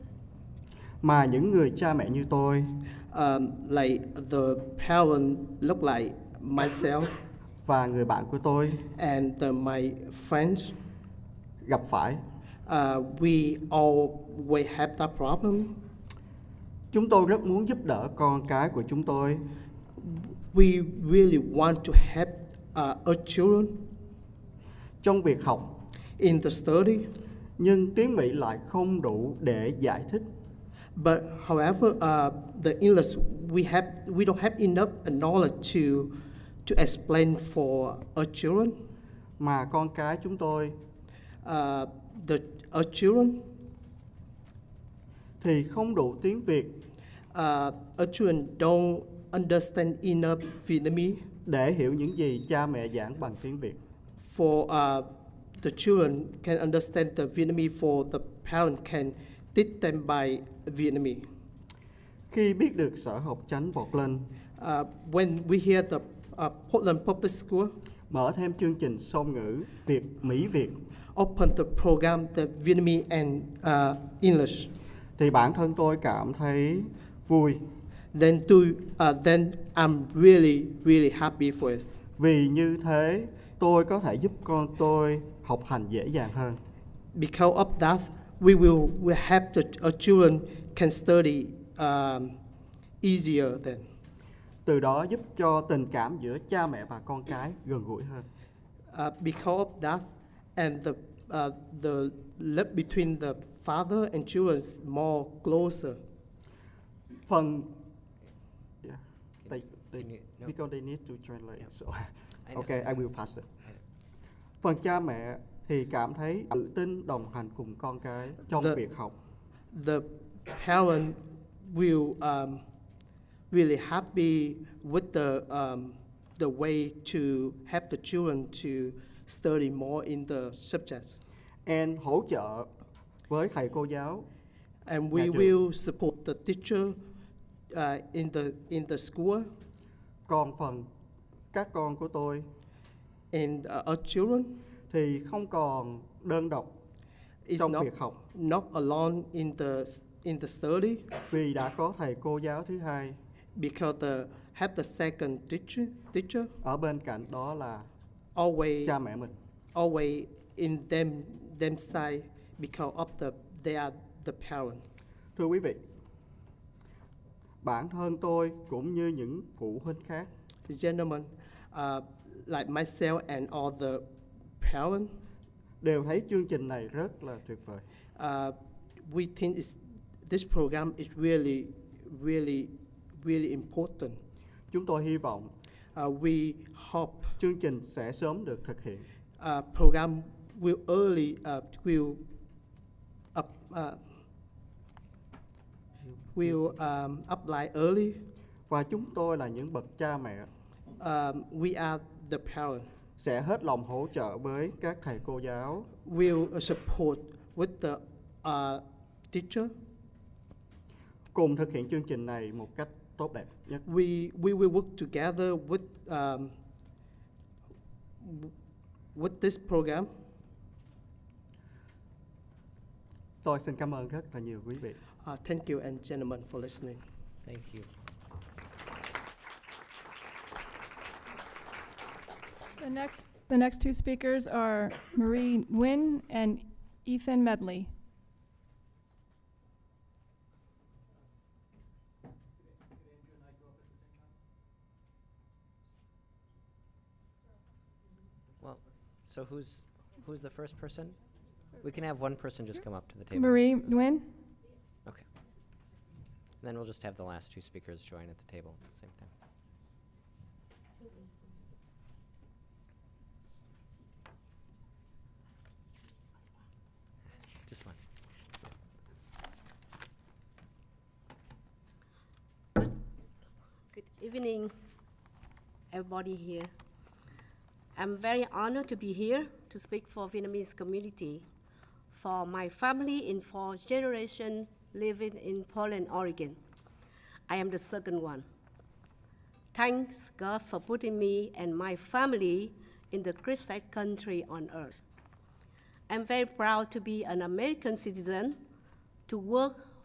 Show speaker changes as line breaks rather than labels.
mà những người cha mẹ như tôi
um, like the parent look like myself
và người bạn của tôi
and uh, my friends,
gặp phải.
uh, we always have that problem.
Chúng tôi rất muốn giúp đỡ con cái của chúng tôi,
We really want to help uh, our children
trong việc học
in the study,
nhưng tiếng Mỹ lại không đủ để giải thích
but however, uh, the English we have we don't have enough knowledge to to explain for our children.
mà con cái chúng tôi
Uh, the our children,
thì không đủ tiếng Việt
uh, our children don't understand enough Vietnamese.
để hiểu những gì cha mẹ giảng bằng tiếng Việt.
for uh, the children can understand the Vietnamese, for the parent can teach them by Vietnamese.
Khi biết được sở học tránh Portland
Uh, when we hear the uh, Portland Public School
mở thêm chương trình song ngữ Việt Mỹ Việt
open the program the Vietnamese and uh, English,
thì bản thân tôi cảm thấy vui
then to uh, then I'm really really happy for it.
vì như thế tôi có thể giúp con tôi học hành dễ dàng hơn.
Because of that, we will we have the our children can study um, easier then.
Từ đó giúp cho tình cảm giữa cha mẹ và con cái gần gũi hơn.
uh, because of that, and the uh, the love between the father and children is more closer.
Phần yeah, they, they,
Can you- no.
because they need to translate.
Yeah.
So
I
okay, I
understand.
will pass it. Phần cha mẹ thì cảm thấy tự tin đồng hành cùng con cái trong
The-
việc học.
The parent will um, really happy with the um, the way to help the children to study more in the subjects,
And hỗ trợ với thầy cô giáo
and we
Nhà trường.
will support the teacher uh, in the in the school
Còn phần các con của tôi
and uh, our children
thì không còn đơn độc
is
trong
not
việc học
not alone in the in the study.
vì đã có thầy cô giáo thứ hai
because the have the second teacher teacher
ở bên cạnh đó là
always
cha mẹ mình.
always in them them side because of the they are the parent.
Thưa quý vị, bản thân tôi cũng như những phụ huynh khác
Gentlemen, uh, like myself and all the parent,
đều thấy chương trình này rất là tuyệt vời.
uh, we think is this program is really really really important.
Chúng tôi hy vọng
Uh, we hope
chương trình sẽ sớm được thực hiện
uh, program will early uh, will up, uh, will um, apply early.
và chúng tôi là những bậc cha mẹ
Um, we are the parent.
sẽ hết lòng hỗ trợ với các thầy cô giáo
Will support with the uh, teacher.
cùng thực hiện chương trình này một cách tốt đẹp nhất.
We we will work together with um, w- with this program.
Tôi xin cảm ơn rất là nhiều quý vị.
Uh, thank you and gentlemen for listening.
Thank you.
The next, the next two speakers are Marie Nguyen and Ethan Medley.
Well, so who's who's the first person? We can have one person just come up to the table.
Marie Nguyen?
Okay. And then we'll just have the last two speakers join at the table at the same time. Just one.
Good evening, everybody here. I'm very honored to be here to speak for Vietnamese community, for my family in four generation living in Portland, Oregon. I am the second one. Thanks God for putting me and my family in the greatest country on earth. I'm very proud to be an American citizen, to work